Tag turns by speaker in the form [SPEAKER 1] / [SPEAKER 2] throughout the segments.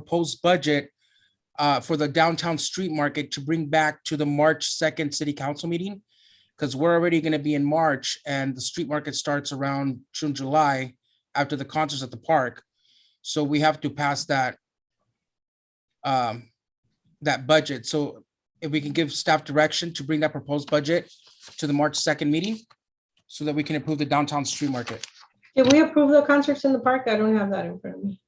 [SPEAKER 1] proposed budget uh, for the downtown street market to bring back to the March second city council meeting. Because we're already gonna be in March and the street market starts around June, July after the concerts at the park. So we have to pass that um, that budget. So if we can give staff direction to bring that proposed budget to the March second meeting so that we can improve the downtown street market.
[SPEAKER 2] Did we approve the concerts in the park? I don't have that in front of me.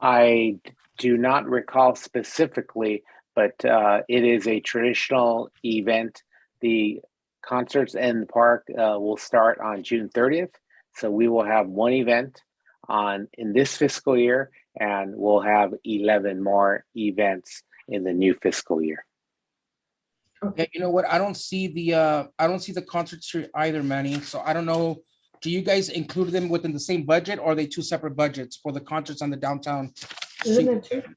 [SPEAKER 3] I do not recall specifically, but uh, it is a traditional event. The concerts in the park uh, will start on June 30th. So we will have one event on in this fiscal year, and we'll have 11 more events in the new fiscal year.
[SPEAKER 1] Yeah, you know what? I don't see the, uh, I don't see the concerts here either, Manny. So I don't know. Do you guys include them within the same budget or are they two separate budgets for the concerts on the downtown?
[SPEAKER 2] Isn't
[SPEAKER 1] street?
[SPEAKER 2] it true?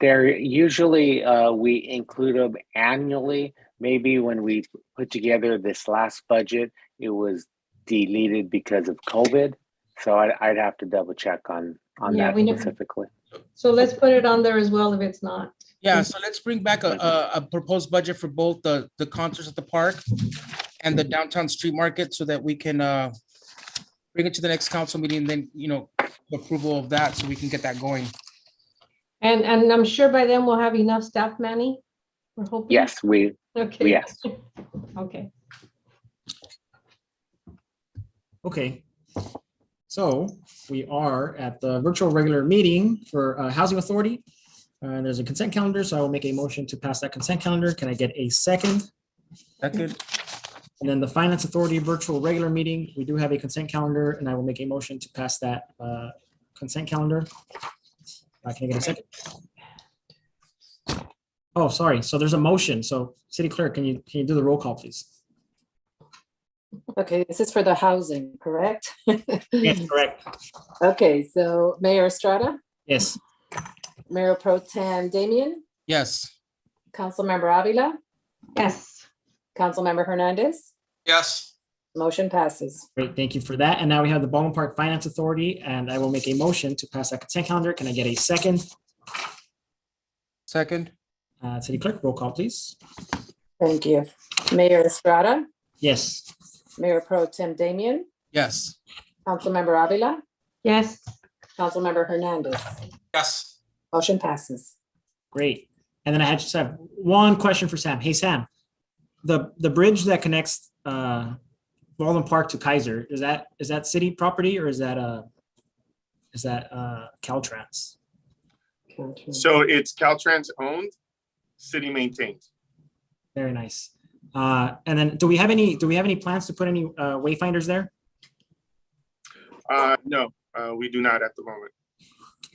[SPEAKER 3] They're usually uh, we include them annually. Maybe when we put together this last budget, it was deleted because of COVID. So I, I'd have to double check on on
[SPEAKER 2] Yeah,
[SPEAKER 3] that
[SPEAKER 2] we never-
[SPEAKER 3] specifically.
[SPEAKER 2] So let's put it on there as well if it's not.
[SPEAKER 1] Yeah, so let's bring back a, a, a proposed budget for both the, the concerts at the park and the downtown street market so that we can, uh, bring it to the next council meeting, then, you know, approval of that, so we can get that going.
[SPEAKER 2] And, and I'm sure by then we'll have enough staff, Manny. We're hoping.
[SPEAKER 3] Yes, we
[SPEAKER 2] Okay.
[SPEAKER 3] yes.
[SPEAKER 2] Okay.
[SPEAKER 4] Okay. So we are at the virtual regular meeting for uh, Housing Authority. Uh, There's a consent calendar, so I will make a motion to pass that consent calendar. Can I get a second?
[SPEAKER 1] That good?
[SPEAKER 4] And then the Finance Authority virtual regular meeting, we do have a consent calendar, and I will make a motion to pass that uh, consent calendar. Uh, Can I get a second? Oh, sorry. So there's a motion. So City Clerk, can you, can you do the roll call, please?
[SPEAKER 5] Okay, this is for the housing, correct?
[SPEAKER 4] Yes, correct.
[SPEAKER 5] Okay, so Mayor Estrada,
[SPEAKER 4] Yes.
[SPEAKER 5] Mayor Pro Tem Damian,
[SPEAKER 1] Yes.
[SPEAKER 5] Councilmember Avila,
[SPEAKER 2] Yes.
[SPEAKER 5] Councilmember Hernandez,
[SPEAKER 6] yes,
[SPEAKER 5] motion passes.
[SPEAKER 4] Great, thank you for that. And now we have the Baldwin Park Finance Authority, and I will make a motion to pass that consent calendar. Can I get a second?
[SPEAKER 1] Second?
[SPEAKER 4] Uh, City Clerk, roll call, please.
[SPEAKER 5] Thank you. Mayor Estrada,
[SPEAKER 4] Yes,
[SPEAKER 5] Mayor Pro Tem Damian,
[SPEAKER 1] Yes.
[SPEAKER 5] Councilmember Avila,
[SPEAKER 2] Yes.
[SPEAKER 5] Councilmember Hernandez,
[SPEAKER 6] yes.
[SPEAKER 5] motion passes.
[SPEAKER 4] great. And then I had just have one question for Sam. Hey, Sam, the, the bridge that connects uh, Baldwin Park to Kaiser, is that, is that city property or is that uh is that uh, Caltrans?
[SPEAKER 7] So it's Caltrans owned, city maintained.
[SPEAKER 4] Very nice. Uh, And then, do we have any, do we have any plans to put any uh, wayfinders there?
[SPEAKER 7] Uh, no, uh, we do not at the moment.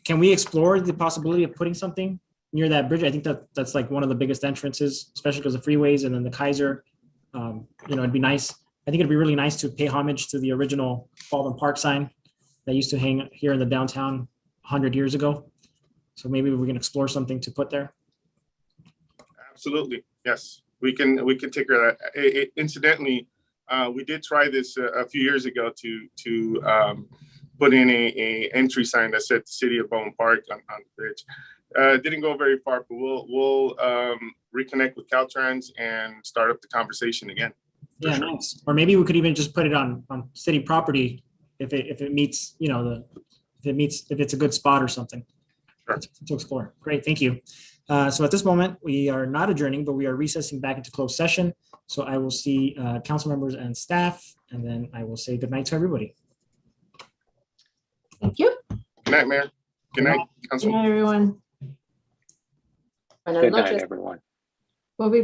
[SPEAKER 4] can we explore the possibility of putting something near that bridge? I think that that's like one of the biggest entrances, especially because of freeways and then the Kaiser. Um, you know, it'd be nice. I think it'd be really nice to pay homage to the original Baldwin Park sign that used to hang here in the downtown hundred years ago. So maybe we can explore something to put there.
[SPEAKER 7] Absolutely, yes. We can, we can take care of that. I- I- Incidentally, uh, we did try this a, a few years ago to, to, um, put in a, a entry sign that said City of Bone Park on, on the bridge. Uh, didn't go very far, but we'll, we'll, um, reconnect with Caltrans and start up the conversation again. For
[SPEAKER 4] Yeah,
[SPEAKER 7] sure.
[SPEAKER 4] nice. Or maybe we could even just put it on on city property if it if it meets, you know, the if it meets if it's a good spot or something.
[SPEAKER 7] Sure.
[SPEAKER 4] to- To explore. Great, thank you. Uh, so at this moment, we are not adjourning, but we are recessing back into closed session. So I will see uh, council members and staff, and then I will say goodnight to everybody.
[SPEAKER 2] Thank you.
[SPEAKER 7] Good night, Mayor. Good night,
[SPEAKER 2] Good
[SPEAKER 7] Council.
[SPEAKER 2] night, everyone.
[SPEAKER 5] Buenas
[SPEAKER 3] Good night,
[SPEAKER 5] noches.
[SPEAKER 3] everyone.
[SPEAKER 2] We'll be